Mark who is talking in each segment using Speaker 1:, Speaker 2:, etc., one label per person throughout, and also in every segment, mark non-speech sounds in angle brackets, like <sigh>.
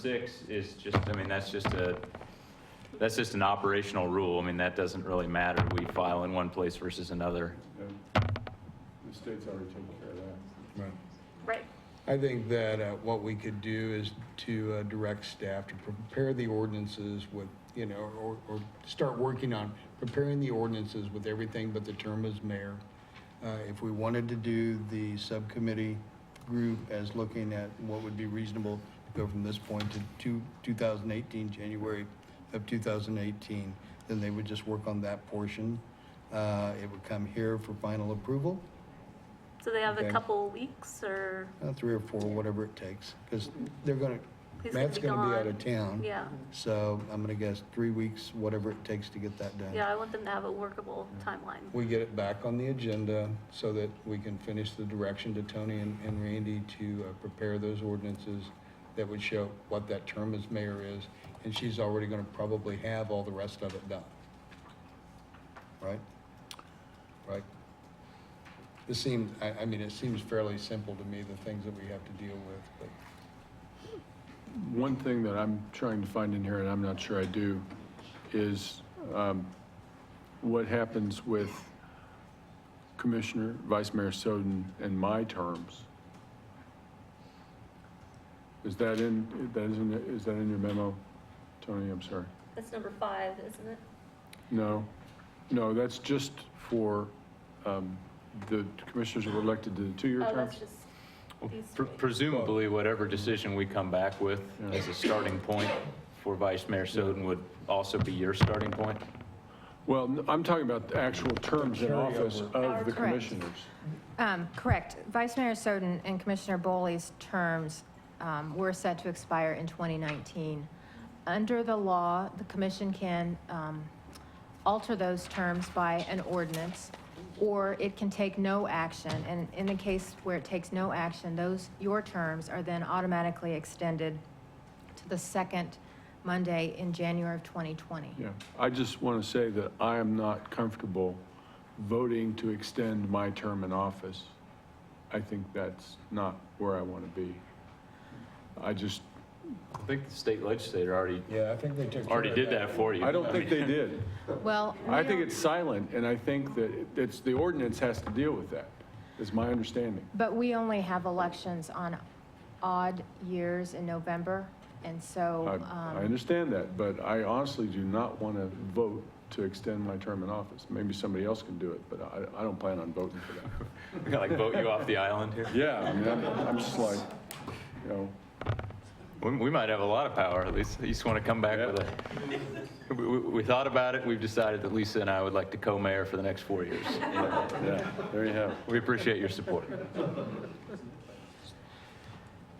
Speaker 1: six is just, I mean, that's just a, that's just an operational rule. I mean, that doesn't really matter. We file in one place versus another.
Speaker 2: Yeah. The state's already taken care of that.
Speaker 3: Right.
Speaker 4: Right.
Speaker 3: I think that uh, what we could do is to uh, direct staff to prepare the ordinances with, you know, or, or start working on preparing the ordinances with everything but the term as mayor. Uh, If we wanted to do the subcommittee group as looking at what would be reasonable to go from this point to two, 2018, January of 2018, then they would just work on that portion. Uh, It would come here for final approval.
Speaker 4: So they have
Speaker 3: Okay.
Speaker 4: a couple weeks or,
Speaker 3: Uh, three or four, whatever it takes, because they're gonna,
Speaker 4: He's gonna
Speaker 3: Matt's
Speaker 4: be
Speaker 3: gonna be out of
Speaker 4: gone.
Speaker 3: town.
Speaker 4: yeah.
Speaker 3: So I'm gonna guess three weeks, whatever it takes to get that done.
Speaker 4: Yeah, I want them to have a workable timeline.
Speaker 3: We get it back on the agenda so that we can finish the direction to Tony and, and Randy to uh, prepare those ordinances that would show what that term as mayor is, and she's already gonna probably have all the rest of it done. Right? Right? This seems, I, I mean, it seems fairly simple to me, the things that we have to deal with, but.
Speaker 2: One thing that I'm trying to find in here, and I'm not sure I do, is um, what happens with Commissioner, Vice Mayor Soden and my terms? Is that in, that isn't, is that in your memo, Tony? I'm sorry.
Speaker 4: That's number five, isn't it?
Speaker 2: No, no, that's just for um, the commissioners who were elected to the two-year
Speaker 4: Oh,
Speaker 2: terms.
Speaker 4: that's just
Speaker 1: Well,
Speaker 4: these
Speaker 1: pre-
Speaker 4: three.
Speaker 1: Presumably, whatever decision we come back with
Speaker 2: Yeah.
Speaker 1: as a starting point for Vice Mayor Soden would also be your starting point?
Speaker 2: Well, n- I'm talking about the actual terms in office of the
Speaker 5: Correct.
Speaker 2: commissioners.
Speaker 5: Um, Correct. Vice Mayor Soden and Commissioner Bowley's terms um, were set to expire in 2019. Under the law, the commission can um, alter those terms by an ordinance, or it can take no action. And in the case where it takes no action, those, your terms are then automatically extended to the second Monday in January of 2020.
Speaker 2: Yeah, I just want to say that I am not comfortable voting to extend my term in office. I think that's not where I want to be. I just,
Speaker 1: I think the state legislator already,
Speaker 3: Yeah, I think they took.
Speaker 1: already did that for you. <laughs>
Speaker 2: I don't think they did.
Speaker 5: Well,
Speaker 2: I
Speaker 5: we
Speaker 2: think
Speaker 5: don't-
Speaker 2: it's silent, and I think that it's, the ordinance has to deal with that, is my understanding.
Speaker 5: But we only have elections on odd years in November, and
Speaker 2: I,
Speaker 5: so,
Speaker 2: I
Speaker 5: um,
Speaker 2: understand that, but I honestly do not want to vote to extend my term in office. Maybe somebody else can do it, but I, I don't plan on voting for that.
Speaker 1: Like vote you off the island here?
Speaker 2: <laughs> Yeah, I mean, I'm, I'm just like, you know,
Speaker 1: We, we might have a lot of power, at least, you just want to come back with a, we, we- we thought about it, we've decided that Lisa and I would like to co-mayor for the next four years.
Speaker 2: yeah, there you have it.
Speaker 1: We appreciate your support.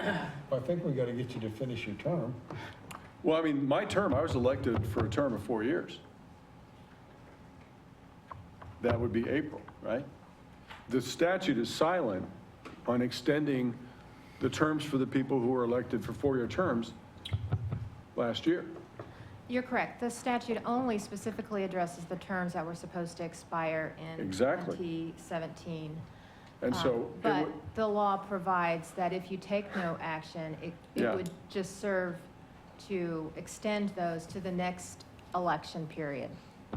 Speaker 3: I think we gotta get you to finish your term.
Speaker 2: Well, I mean, my term, I was elected for a term of four years. That would be April, right? The statute is silent on extending the terms for the people who were elected for four-year terms last year.
Speaker 5: you're correct. The statute only specifically addresses the terms that were supposed to expire in
Speaker 2: Exactly.
Speaker 5: 2017.
Speaker 2: And
Speaker 5: Um,
Speaker 2: so, it
Speaker 5: But
Speaker 2: would-
Speaker 5: the law provides that if you take no action, it,
Speaker 2: Yeah.
Speaker 5: it would just serve to extend those to the next election period.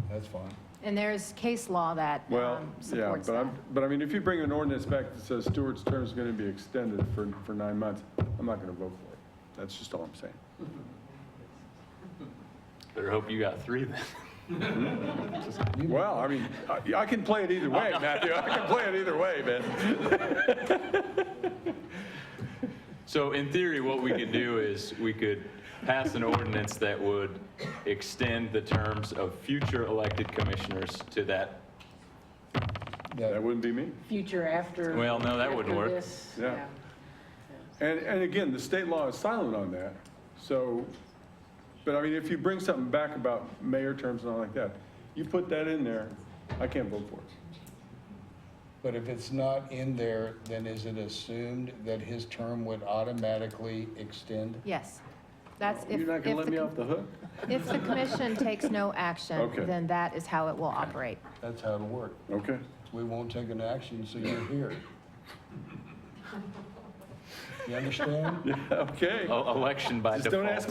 Speaker 3: That's fine.
Speaker 5: And there's case law that
Speaker 2: well,
Speaker 5: um,
Speaker 2: yeah,
Speaker 5: supports
Speaker 2: but
Speaker 5: that.
Speaker 2: I'm, but I mean, if you bring an ordinance back that says Stewart's term is going to be extended for, for nine months, I'm not going to vote for it. That's just all I'm saying.
Speaker 1: Better hope you got three
Speaker 2: <laughs>
Speaker 1: then.
Speaker 2: Well, I mean, I- I can play it either <laughs> way, Matthew. I can play it either way, man.
Speaker 1: <laughs> So in theory, what we could do is we could pass an ordinance that would extend the terms of future elected commissioners to that.
Speaker 2: That wouldn't be me.
Speaker 6: future after.
Speaker 1: Well, no, that wouldn't
Speaker 6: after
Speaker 1: work.
Speaker 6: this,
Speaker 2: Yeah. And, and again, the state law is silent on that. So, but I mean, if you bring something back about mayor terms and all like that, you put that in there, I can't vote for it.
Speaker 3: But if it's not in there, then is it assumed that his term would automatically extend?
Speaker 5: Yes. That's if.
Speaker 2: You're not going to let
Speaker 5: if the
Speaker 2: me
Speaker 5: com-
Speaker 2: off the hook?
Speaker 5: If the commission takes no action,
Speaker 2: Okay.
Speaker 5: then that is how it will operate.
Speaker 3: That's how it'll work.
Speaker 2: Okay. <laughs>
Speaker 3: We won't take an action, so you're here.
Speaker 7: You understand?
Speaker 1: Okay.
Speaker 2: E- Election by
Speaker 1: Just e-,
Speaker 2: default.
Speaker 1: don't ask